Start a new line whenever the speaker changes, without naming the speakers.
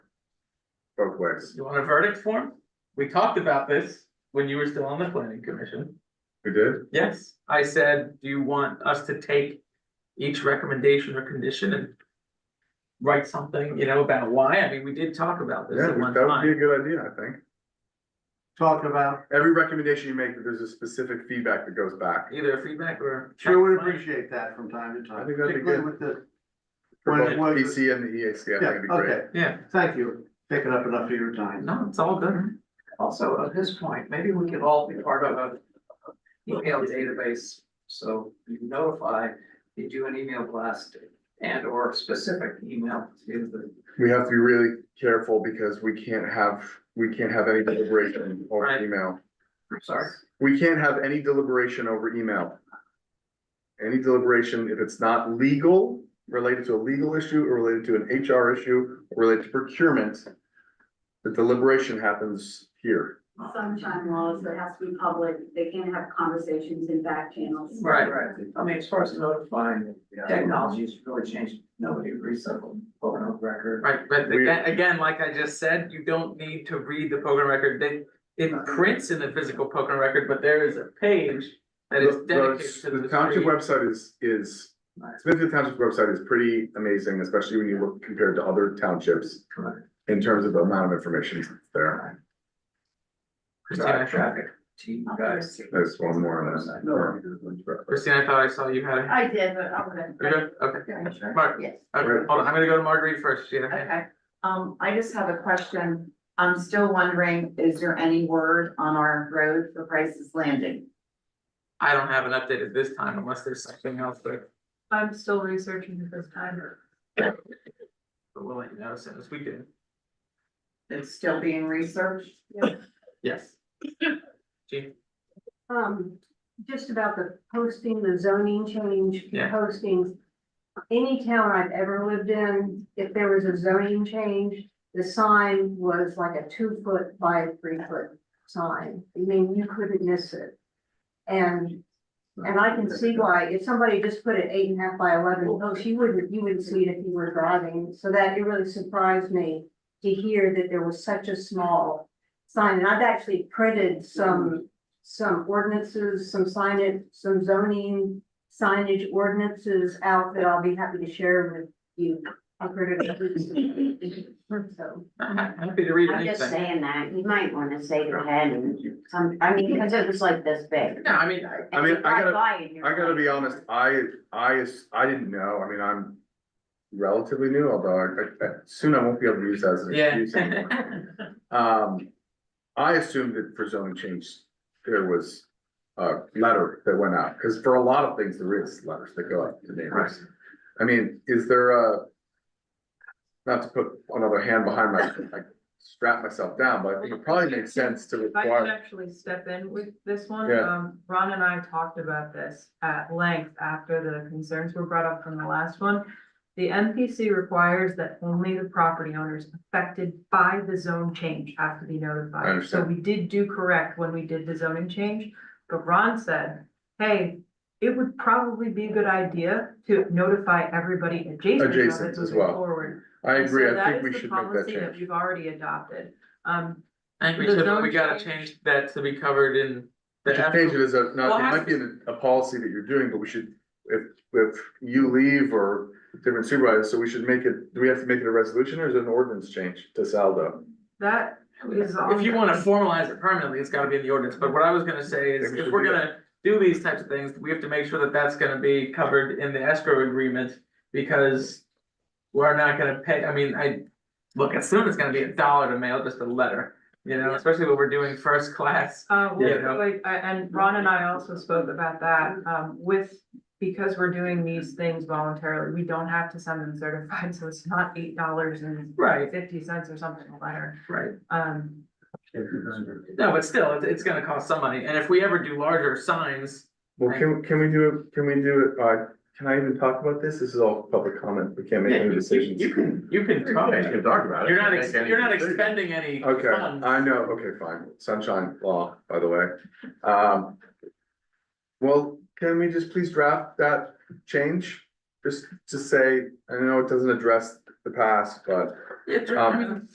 both ways.
You want a verdict form? We talked about this when you were still on the planning commission.
We did?
Yes, I said, do you want us to take each recommendation or condition and write something, you know, about why? I mean, we did talk about this
Yeah,
at one
that would be a
time.
good idea, I think.
talking about,
Every recommendation you make, there's a specific feedback that goes back.
Either feedback or.
sure would appreciate that from time to
I
time,
think that'd be
particularly
good.
with the,
For
When
both
it was-
PC and the EAC, I think
yeah,
it'd be great.
okay,
Yeah,
thank you, picking up enough of your time.
no, it's all good.
Also, at this point, maybe we could all be part of a email database, so you notify, you do an email blast and or specific email to the.
We have to be really careful because we can't have, we can't have any deliberation over
Right.
email.
I'm sorry,
We can't have any deliberation over email. Any deliberation, if it's not legal, related to a legal issue or related to an HR issue, or related to procurement, the deliberation happens here.
sunshine laws, it has to be public, they can't have conversations in back channels.
Right.
right, I mean, as far as notifying, technology's really changed, nobody recycled voter record.
Right, but
We-
again, again, like I just said, you don't need to read the program record, they, it prints in the physical program record, but there is a page that is
The- the-
dedicated to the.
The township
three.
website is, is,
Nice.
Smithfield Township's website is pretty amazing, especially when you look compared to other townships
Correct.
in terms of the amount of information there.
Christine, I thought,
Traffic team guys.
There's one more on that.
Christine, I thought I saw you had a.
I did, but I wouldn't.
You're good? Okay, Mark,
Yes,
okay, hold on, I'm gonna go to Marguerite first, she had a hand.
okay. Um, I just have a question. I'm still wondering, is there any word on our road for Price's Landing?
I don't have an update at this time unless there's something else, but
I'm still researching the first time.
but we'll let you know as soon as we do.
It's still being researched?
Yes. Gene,
Um, just about the posting, the zoning change, the
Yeah.
postings. Any town I've ever lived in, if there was a zoning change, the sign was like a two foot by three foot sign. I mean, you couldn't miss it. And, and I can see why, if somebody just put it eight and a half by eleven, oh, she wouldn't, you wouldn't see it if you were driving. So that, it really surprised me to hear that there was such a small sign. And I've actually printed some some ordinances, some signage, some zoning signage ordinances out that I'll be happy to share with you. I've heard it. So,
I'm ha- happy to read
I'm just
anything.
saying that, you might wanna say the head and some, I mean, because it was like this big.
No, I mean,
I mean, I gotta-
gotta,
I gotta be honest, I, I, is- I didn't know, I mean, I'm relatively new, although I, I, soon I won't be able to use that as an excuse anymore.
yeah.
Um, I assumed that for zoning change, there was a letter that went out, because for a lot of things, there is letters that go out to neighbors. I mean, is there a? Not to put another hand behind my, like strap myself down, but I think it probably makes sense to
If I could
require,
actually step in with this one,
Yeah.
um, Ron and I talked about this at length after the concerns were brought up from the last one. The MPC requires that only the property owners affected by the zone change have to be notified.
I understand.
So we did do correct when we did the zoning change, but Ron said, hey, it would probably be a good idea to notify everybody adjacent to
Adjacent
it
as
moving
well.
forward.
I
And so
agree, I
that
think
is
we
the
should make that
policy
change.
We've already adopted, um,
I think we
The
should, but
zone
we gotta
change.
change that to be covered in.
We
the
should change it as a,
Well,
no, it
I-
might be in a policy that you're doing, but we should, if, if you leave or different supervisors, so we should make it, do we have to make it a resolution or is it an ordinance change to Saldo?
that is on.
If you wanna formalize it permanently, it's gotta be in the ordinance, but what I was gonna say is,
Think we
if
should
we're
do that.
gonna do these types of things, we have to make sure that that's gonna be covered in the escrow agreement, because we're not gonna pay, I mean, I, look, as soon as it's gonna be a dollar to mail just a letter, you know, especially when we're doing first class.
Uh,
Yeah.
with- like, I- and Ron and I also spoke about that, um, with, because we're doing these things voluntarily, we don't have to send them certified, so it's not eight dollars and
Right.
fifty cents or something a letter,
Right,
um,
no, but still, it's, it's gonna cost some money, and if we ever do larger signs,
Well, can, can we do it, can we do it, uh, can I even talk about this? This is all public comment, we can't make
Yeah,
any decisions.
you can, you can talk,
Okay, you
you're
can talk about it.
not, ex-
Make any
you're not
decisions.
expending any funds.
Okay, I know, okay, fine, sunshine law, by the way, um. Well, can we just please draft that change, just to say, I know it doesn't address the past, but
It- I
Um,
mean,